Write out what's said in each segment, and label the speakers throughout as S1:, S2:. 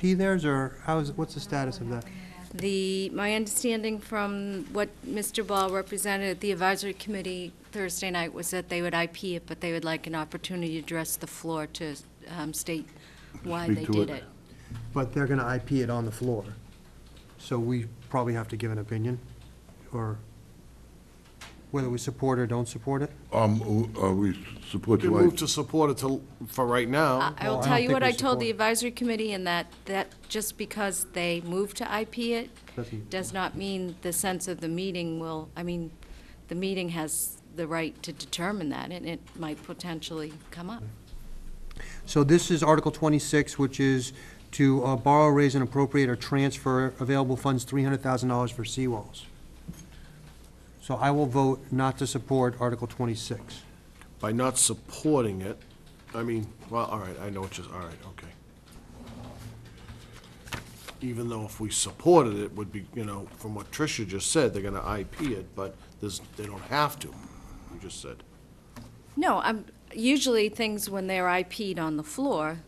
S1: P theirs, or how's, what's the status of that?
S2: The, my understanding from what Mr. Ball represented at the advisory committee Thursday night was that they would IP it, but they would like an opportunity to address the floor to um, state why
S3: Speak
S2: they
S3: to
S2: did
S3: it.
S2: it.
S1: But they're gonna IP it on the floor, so we probably have to give an opinion, or whether we support or don't support it.
S3: Um, uh, we support
S4: You
S3: you.
S4: move to support it to, for right
S2: I
S4: now.
S2: I
S1: Oh, Well,
S2: will
S1: I
S2: tell
S1: don't
S2: you
S1: think
S2: what
S1: we
S2: I told
S1: support
S2: the
S1: it.
S2: advisory committee, and that, that just because they moved to IP it
S1: Doesn't-
S2: does not mean the sense of the meeting will, I mean, the meeting has the right to determine that, and it might potentially come up.
S1: So this is Article twenty-six, which is to uh, borrow, raise, and appropriate or transfer available funds, three hundred thousand dollars for seawalls. So I will vote not to support Article twenty-six.
S4: By not supporting it, I mean, well, all right, I know what you're, all right, okay. Even though if we supported it, would be, you know, from what Tricia just said, they're gonna IP it, but there's, they don't have to, you just said.
S2: No, I'm, usually things when they're IP'd on the floor,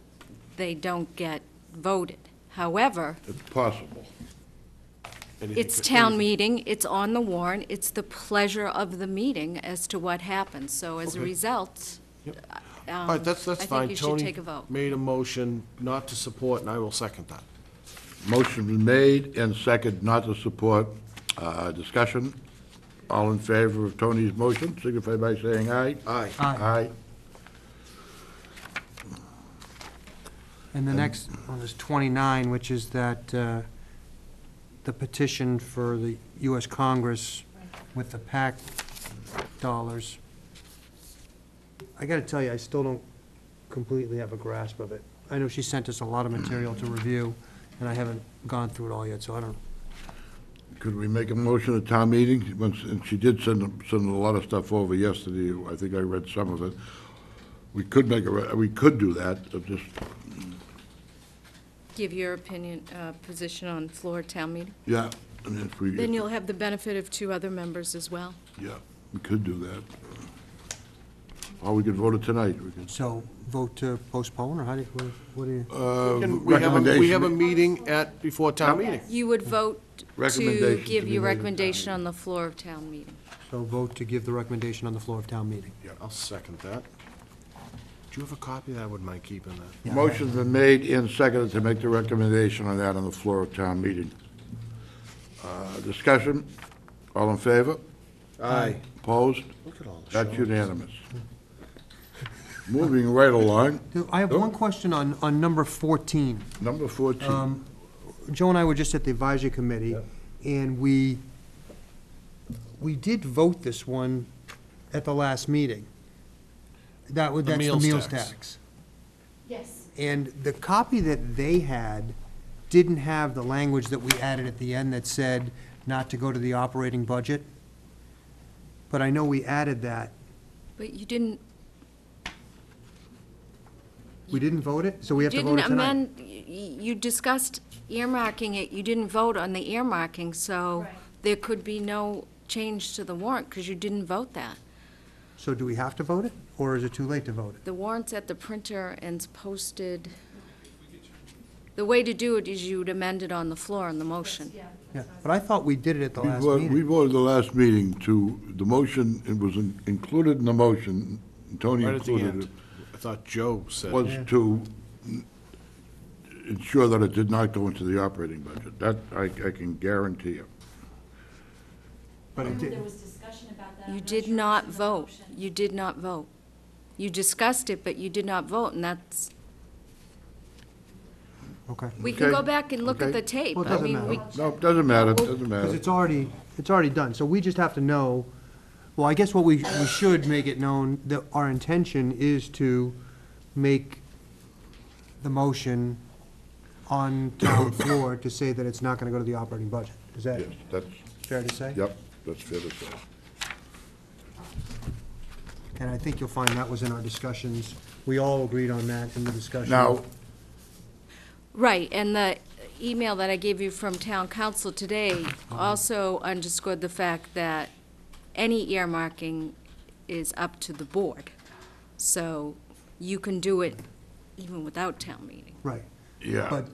S2: they don't get voted. However,
S3: It's possible.
S4: Anything
S2: it's
S4: for-
S2: town meeting, it's on the warrant, it's the pleasure of the meeting as to what happens. So as a
S4: Okay.
S2: result, uh, um,
S4: All right, that's, that's
S2: I think
S4: fine.
S2: you should
S4: Tony
S2: take a vote.
S4: Made a motion not to support, and I will second that.
S3: Motion been made and second not to support. Uh, Discussion. All in favor of Tony's motion, signify by saying aye.
S4: Aye.
S3: Aye.
S1: And the next one is 29, which is that uh, the petition for the U.S. Congress with the PAC dollars. I got to tell you, I still don't completely have a grasp of it. I know she sent us a lot of material to review, and I haven't gone through it all yet, so I don't,
S3: Could we make a motion at town meeting? Once- And she did send, send a lot of stuff over yesterday. I think I read some of it. We could make a, re- we could do that, but just,
S2: give your opinion, uh, position on floor town meeting.
S3: yeah. I mean, if we-
S2: Then you'll have the benefit of two other members as well.
S3: Yeah, we could do that. Or we could vote it tonight. We could-
S1: so vote to postpone, or how do you, what- what do you?
S3: Uh,
S4: Can Um, We have, a- we have a
S3: recommendation-
S4: meeting at, before town meeting.
S2: You would vote to
S3: Recommendation to
S2: give
S3: be
S2: your
S3: made at town
S2: recommendation on the floor of town meeting.
S1: So vote to give the recommendation on the floor of town meeting.
S4: I'll second that. Do you have a copy of that? I wouldn't mind keeping that.
S3: Motion's been made and seconded to make the recommendation on that on the floor of town meeting. Uh, Discussion, all in favor?
S4: Aye.
S3: Opposed?
S4: Look at all the
S3: That's unanimous. Moving right along,
S1: I have one question on, on number 14.
S3: number 14.
S1: Um, Joe and I were just at the advisory committee, and we, we did vote this one at the last meeting. That would,
S4: The
S1: that's the
S4: meals
S1: meals
S4: tax.
S1: tax.
S2: Yes.
S1: And the copy that they had didn't have the language that we added at the end that said not to go to the operating budget. But I know we added that.
S2: But you didn't
S1: We didn't vote it, so we have to vote
S2: didn't
S1: it tonight.
S2: amend, y- y- you discussed earmarking it, you didn't vote on the earmarking, so there could be no change to the warrant, because you didn't vote that.
S1: So do we have to vote it, or is it too late to vote it?
S2: The warrant's at the printer and it's posted. The way to do it is you'd amend it on the floor on the motion.
S1: Yeah, but I thought we did it at the
S3: We
S1: last
S3: vote- We
S1: meeting.
S3: voted the last meeting to, the motion, it was in- included in the motion, Tony
S4: Right at the
S3: included
S4: end.
S3: it,
S4: I thought Joe said.
S3: was to ensure that it did not go into the operating budget. That, I I can guarantee you.
S1: But it did,
S5: There was discussion about that. I'm
S2: You
S5: not
S2: did
S5: sure if
S2: not
S5: it's an
S2: vote.
S5: option.
S2: You did not vote. You discussed it, but you did not vote, and that's,
S1: okay.
S2: we can go
S3: Okay.
S2: back and look at
S3: Okay.
S2: the tape.
S1: Well, it
S2: I
S1: doesn't
S2: mean,
S1: matter.
S2: we-
S3: No, it doesn't matter, doesn't
S1: Because
S3: matter.
S1: it's already, it's already done, so we just have to know, well, I guess what we, we should make it known, that our intention is to make the motion on town floor to say that it's not gonna go to the operating budget. Is that
S3: Yes, that's,
S1: fair to say?
S3: yep, that's fair to say.
S1: And I think you'll find that was in our discussions, we all agreed on that in the discussion.
S3: Now,
S2: Right, and the email that I gave you from town council today also underscored the fact that any earmarking is up to the board. So you can do it even without town meeting.
S1: Right.
S3: Yeah.
S1: But